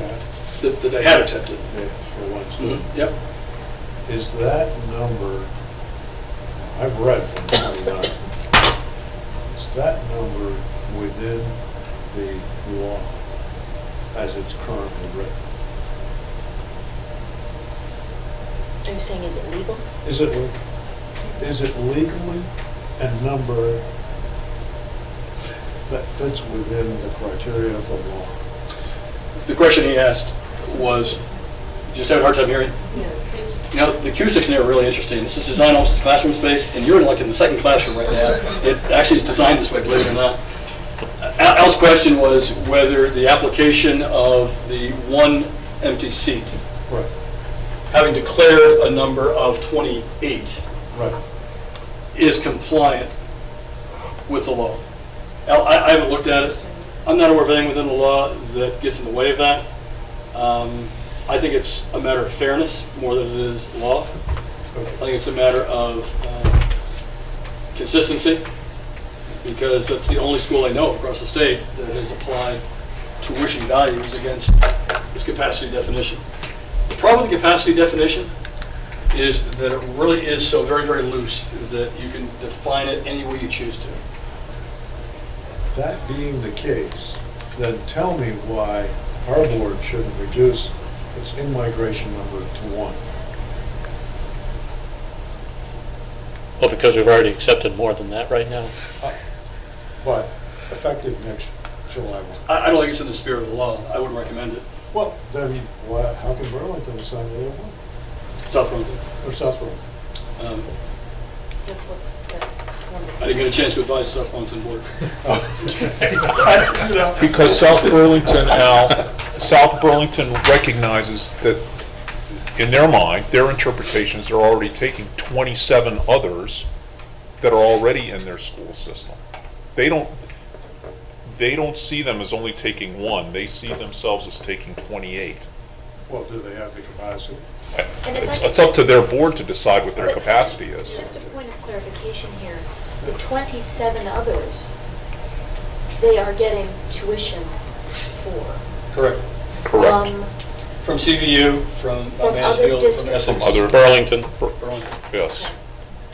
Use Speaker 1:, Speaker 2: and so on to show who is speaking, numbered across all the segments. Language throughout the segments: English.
Speaker 1: that that they have accepted. Mm-hmm.
Speaker 2: Yeah, for once.
Speaker 1: Yep.
Speaker 2: Is that number, I've read from 29, is that number within the law as it's currently written?
Speaker 3: Are you saying is it legal?
Speaker 2: Is it, is it legally a number that fits within the criteria of the law?
Speaker 1: The question he asked was, just having a hard time hearing,
Speaker 4: Yeah, thank you.
Speaker 1: you know, the Q six area are really interesting. This is designed almost as classroom space, and you're in like in the second classroom right now. It actually is designed this way, believe it or not. Al- Al's question was whether the application of the one empty seat,
Speaker 2: Right,
Speaker 1: having declared a number of twenty-eight,
Speaker 2: right.
Speaker 1: is compliant with the law. Al, I, I haven't looked at it. I'm not aware of anything within the law that gets in the way of that. Um, I think it's a matter of fairness more than it is law. I think it's a matter of um, consistency, because that's the only school I know across the state that has applied tuition values against its capacity definition. The problem with the capacity definition is that it really is so very, very loose that you can define it any way you choose to.
Speaker 2: That being the case, then tell me why our board shouldn't reduce its in-migration number to one.
Speaker 5: Well, because we've already accepted more than that right now.
Speaker 2: Uh, But effective next July 1.
Speaker 1: I, I don't think it's in the spirit of the law. I wouldn't recommend it.
Speaker 2: Well, then why, how can Burlington sign the other one?
Speaker 1: South Burlington.
Speaker 2: Or South Burlington?
Speaker 1: Um,
Speaker 3: That's what's, that's one of the.
Speaker 1: I didn't get a chance to advise the South Burlington board.
Speaker 2: You know,
Speaker 6: Because South Burlington, Al, South Burlington recognizes that, in their mind, their interpretations, they're already taking 27 others that are already in their school system. They don't, they don't see them as only taking one, they see themselves as taking 28.
Speaker 2: Well, do they have the capacity?
Speaker 3: And if I
Speaker 6: It's,
Speaker 3: could
Speaker 6: it's up
Speaker 3: just-
Speaker 6: to their board to decide what their
Speaker 3: But
Speaker 6: capacity is.
Speaker 3: Just a point of clarification here. The 27 others, they are getting tuition for. Um,
Speaker 1: Correct.
Speaker 6: Correct.
Speaker 3: from-
Speaker 1: From CVU, from uh,
Speaker 3: From other
Speaker 1: Mansfield, from
Speaker 3: districts.
Speaker 1: Essex.
Speaker 6: From other-
Speaker 5: Burlington,
Speaker 1: Burlington.
Speaker 6: Yes,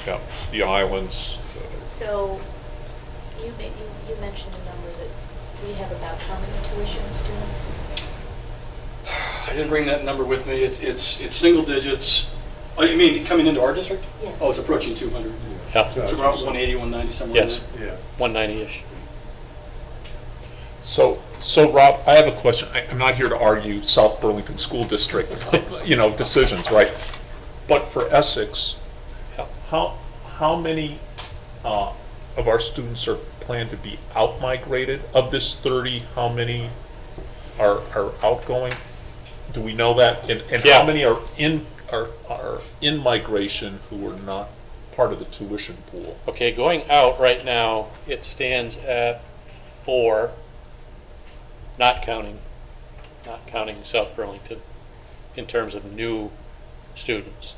Speaker 6: yeah, the islands,
Speaker 3: So you made, you mentioned a number that we have about how many tuition students?
Speaker 1: I didn't bring that number with me. It's, it's, it's single digits. Oh, you mean coming into our district?
Speaker 3: Yes.
Speaker 1: Oh, it's approaching 200.
Speaker 5: Yeah.
Speaker 1: It's around 180, 190, somewhere. in
Speaker 5: Yes.
Speaker 1: there.
Speaker 2: Yeah.
Speaker 5: 190-ish.
Speaker 6: So, so Rob, I have a question. I, I'm not here to argue South Burlington School District, you know, decisions, right? But for Essex, how, how many, uh, of our students are planned to be out-migrated? Of this thirty, how many are, are outgoing? Do we know that? And, and how
Speaker 5: Yeah.
Speaker 6: many are in, are, are in migration who are not part of the tuition pool?
Speaker 5: Okay, going out right now, it stands at four, not counting, not counting South Burlington, in terms of new students.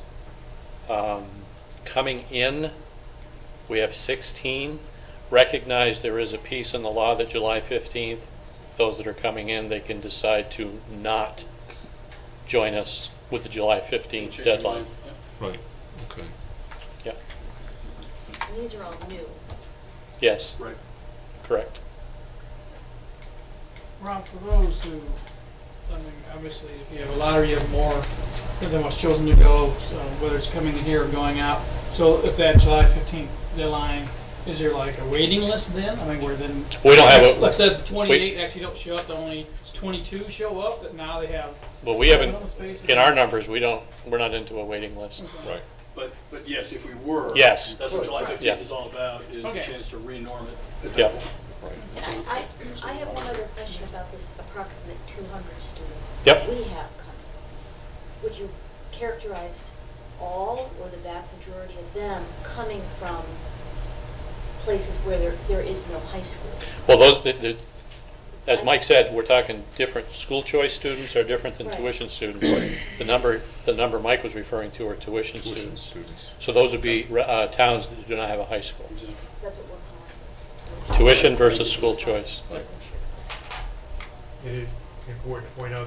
Speaker 5: Um, Coming in, we have 16. Recognize there is a piece in the law that July 15th, those that are coming in, they can decide to not join us with the July 15th
Speaker 1: Changing
Speaker 5: deadline.
Speaker 1: line. Yeah.
Speaker 6: Right, okay.
Speaker 5: Yep,
Speaker 3: And these are all new.
Speaker 5: yes,
Speaker 1: Right.
Speaker 5: correct.
Speaker 4: Rob, for those who, I mean, obviously, if you have a lottery, you have more than what's chosen to go, so whether it's coming in here or going out. So if that July fifteenth deadline, is there like a waiting list then? I mean, we're then.
Speaker 5: We don't have a-
Speaker 4: Like I said, twenty-eight actually don't show up, only twenty-two show up, that now they have.
Speaker 5: Well, we
Speaker 4: seven
Speaker 5: haven't-
Speaker 4: open spaces.
Speaker 5: In our numbers, we don't, we're not into a waiting list.
Speaker 6: Right.
Speaker 1: But, but yes, if we were.
Speaker 5: Yes.
Speaker 1: That's what July 15th
Speaker 5: Yeah.
Speaker 1: is all about, is a
Speaker 4: Okay.
Speaker 1: chance to re-norm it. at that
Speaker 5: Yeah.
Speaker 1: point.
Speaker 3: And I, I- I have one other question about this approximate 200 students.
Speaker 5: Yep.
Speaker 3: that We have coming. Would you characterize all or the vast majority of them coming from places where there, there is no high school?
Speaker 5: Well, those, the- the- as Mike said, we're talking different, school choice students are different than
Speaker 3: Right.
Speaker 5: tuition students. The number, the number Mike was referring to are tuition
Speaker 6: Tuition
Speaker 5: students.
Speaker 6: students.
Speaker 5: So those would be uh, towns that do not have a high school.
Speaker 1: Exactly.
Speaker 3: So that's what we're calling.
Speaker 5: Tuition versus school choice.
Speaker 4: Right.
Speaker 7: It is important to point out